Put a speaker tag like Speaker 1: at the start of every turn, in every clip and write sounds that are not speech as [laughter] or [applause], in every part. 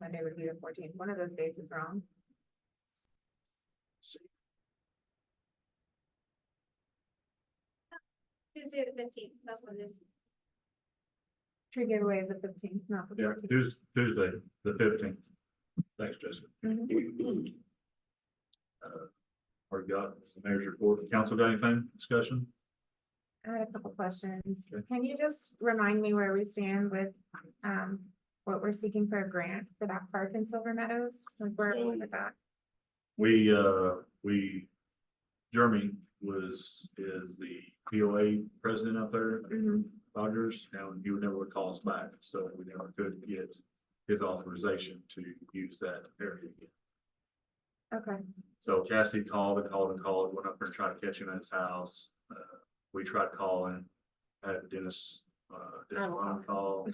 Speaker 1: Monday would be the fourteenth. One of those dates is wrong.
Speaker 2: Tuesday the fifteenth, that's what it is.
Speaker 1: Tree giveaway is the fifteenth, not the
Speaker 3: Yeah,
Speaker 1: fourteenth.
Speaker 3: Tuesday, Tuesday, the fifteenth. Thanks, Jessica. Uh, Already got the mayor's report. Council got anything? Discussion?
Speaker 1: I had a couple questions.
Speaker 3: Okay.
Speaker 1: Can you just remind me where we stand with, um, what we're seeking for a grant for that park in Silver Meadows? Like where are we with that?
Speaker 3: We, uh, we, Jeremy was, is the POA president up there,
Speaker 1: Mhm.
Speaker 3: Rogers, and he would never call us back, so we never could get his authorization to use that area again.
Speaker 1: Okay,
Speaker 3: So Cassie called and called and called, went up there and tried to catch him at his house. Uh, we tried calling, had Dennis, uh, Dennis
Speaker 1: Oh,
Speaker 3: Lyon
Speaker 1: okay.
Speaker 3: call.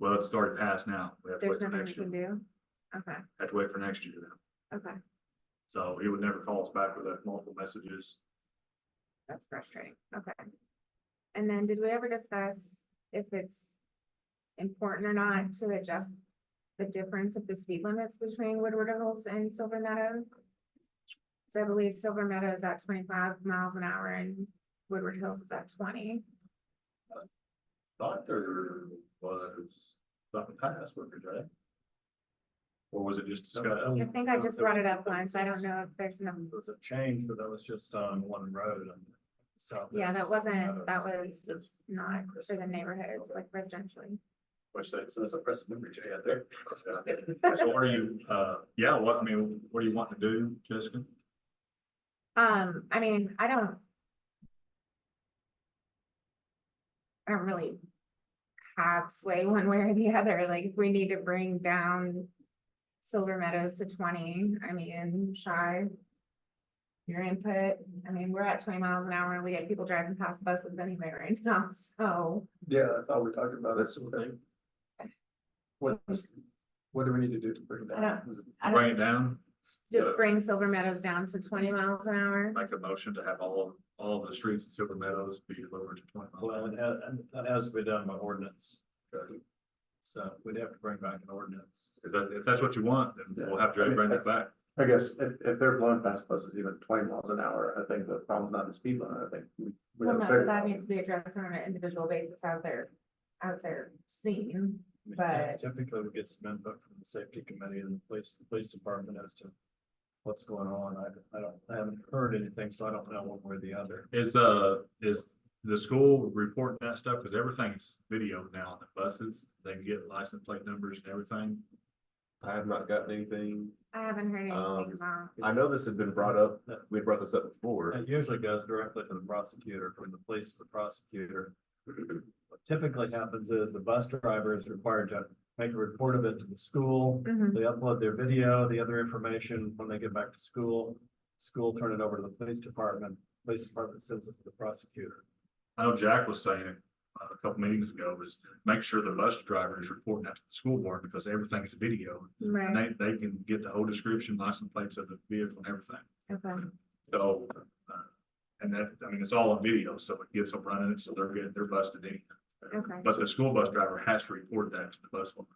Speaker 3: Well, it started past now. We have to
Speaker 1: there's
Speaker 3: wait for
Speaker 1: nothing we
Speaker 3: next
Speaker 1: can
Speaker 3: year.
Speaker 1: do? Okay,
Speaker 3: Have to wait for next year now.
Speaker 1: okay,
Speaker 3: So he would never call us back with that multiple messages.
Speaker 1: that's frustrating, okay. And then did we ever discuss if it's important or not to adjust the difference of the speed limits between Woodward Hills and Silver Meadow? So I believe Silver Meadow is at twenty-five miles an hour and Woodward Hills is at twenty.
Speaker 3: Thought there was something past with her, right? Or was it just discussed?
Speaker 1: I think I just brought it up once, I don't know if there's enough,
Speaker 4: It was a change, but that was just on one road on the south. end
Speaker 1: Yeah, that
Speaker 4: of Silver
Speaker 1: wasn't- that
Speaker 4: Meadows.
Speaker 1: was- not for the neighborhoods, like residentially.
Speaker 4: Which, that- so that's a press member Jay out there.
Speaker 3: So what are you, uh, yeah, what, I mean, what do you want to do, Jessica?
Speaker 1: Um, I mean, I don't. I don't really have sway one way or the other, like if we need to bring down Silver Meadows to twenty, I mean, shy. Your input, I mean, we're at twenty miles an hour and we get people driving past buses anyway right [laughs] now, so.
Speaker 4: Yeah, I thought we talked about
Speaker 3: That's the thing.
Speaker 4: What's, what do we need to do to bring it
Speaker 1: I I
Speaker 3: Bring
Speaker 1: don't
Speaker 3: it down?
Speaker 1: Just bring Silver Meadows down to twenty miles an hour,
Speaker 3: Make a motion to have all, all the streets in Silver Meadows be lowered to twenty
Speaker 4: Well,
Speaker 3: miles.
Speaker 4: it has, that has to be done by ordinance. So we'd have to bring back an ordinance.
Speaker 3: If that's, if that's what you want, then we'll have to bring it back.
Speaker 5: I guess if, if they're blowing past buses even twenty miles an hour, I think the problem's not the speed limit, I think. we- we
Speaker 1: well,
Speaker 5: have a
Speaker 1: no,
Speaker 5: bigger
Speaker 1: that
Speaker 5: problem.
Speaker 1: needs to be addressed on an individual basis as they're, as they're seen. But-
Speaker 4: Typically, we get some input from the safety committee and the police, the police department as to what's going on. I, I don't, I haven't heard anything, so I don't know one way or the other.
Speaker 3: Is, uh, is the school reporting that stuff? Cause everything's video now on the buses. They can get license plate numbers and everything.
Speaker 6: I have not gotten anything.
Speaker 1: I haven't heard anything
Speaker 6: Um,
Speaker 1: about,
Speaker 6: I know this had been brought up, we brought this up before.
Speaker 4: It usually goes directly to the prosecutor, from the police to the prosecutor. What typically happens is the bus driver is required to make a report of it to the school.
Speaker 1: Mhm.
Speaker 4: They upload their video, the other information when they get back to school. School turn it over to the police department, police department sends it to the prosecutor.
Speaker 3: I know Jack was saying it uh, a couple meetings ago was make sure the bus driver is reporting that to the school board because everything is video. And
Speaker 1: right,
Speaker 3: they, they can get the whole description, license plates of the vehicle and everything.
Speaker 1: okay,
Speaker 3: So, uh, and that, I mean, it's all on video, so it gets them running, so they're getting, they're busted in.
Speaker 1: Okay.
Speaker 3: But the school bus driver has to report that to the bus one.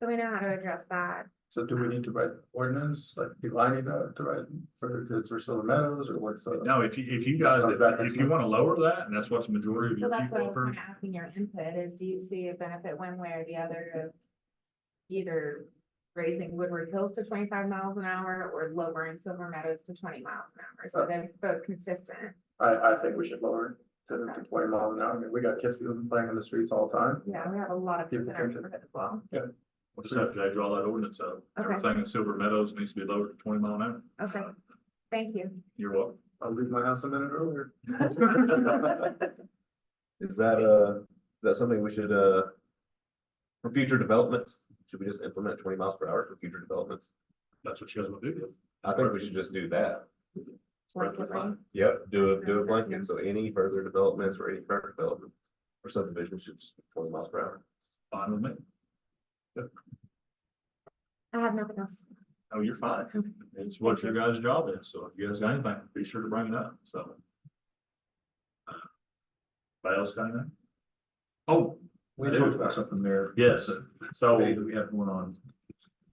Speaker 1: so we know how to address that,
Speaker 5: So do we need to write ordinance, like do I need to to write for, because we're still in meadows or what's the?
Speaker 3: No, if you, if you guys, if if you wanna lower that, and that's what the majority of
Speaker 1: so
Speaker 3: your
Speaker 1: that's what I
Speaker 3: people
Speaker 1: was
Speaker 3: are,
Speaker 1: kind of asking your input, is do you see a benefit one way or the other of either raising Woodward Hills to twenty-five miles an hour or lowering Silver Meadows to twenty miles an hour, so they're both consistent,
Speaker 5: I, I think we should lower it to to twenty miles an hour, I mean, we got kids people playing on the streets all the time.
Speaker 1: yeah, we have a lot of kids in
Speaker 5: People
Speaker 1: our
Speaker 5: think that-
Speaker 1: neighborhood as well,
Speaker 3: we'll just have to draw that ordinance up.
Speaker 1: Okay.
Speaker 3: Everything in Silver Meadows needs to be lowered to twenty mile an hour.
Speaker 1: okay, thank you.
Speaker 3: You're welcome.
Speaker 5: I'll leave my house a minute earlier. [laughs]
Speaker 1: [laughs]
Speaker 6: Is that, uh, is that something we should, uh, for future developments, should we just implement twenty miles per hour for future developments?
Speaker 3: That's what you guys will do.
Speaker 6: I think we should just do that.
Speaker 1: Collectively.
Speaker 6: Yep, do a, do a blanket, so any further developments or any current development or subdivision should just be twenty miles per hour.
Speaker 3: Fine with me.
Speaker 1: I have nothing else.
Speaker 3: Oh, you're fine. It's what your guys' job is, so if you guys got anything, be sure to bring it up, so. Uh, Anybody else got anything? Oh,
Speaker 4: We
Speaker 3: I do.
Speaker 4: talked about something there.
Speaker 3: Yes, so
Speaker 4: That we have going on.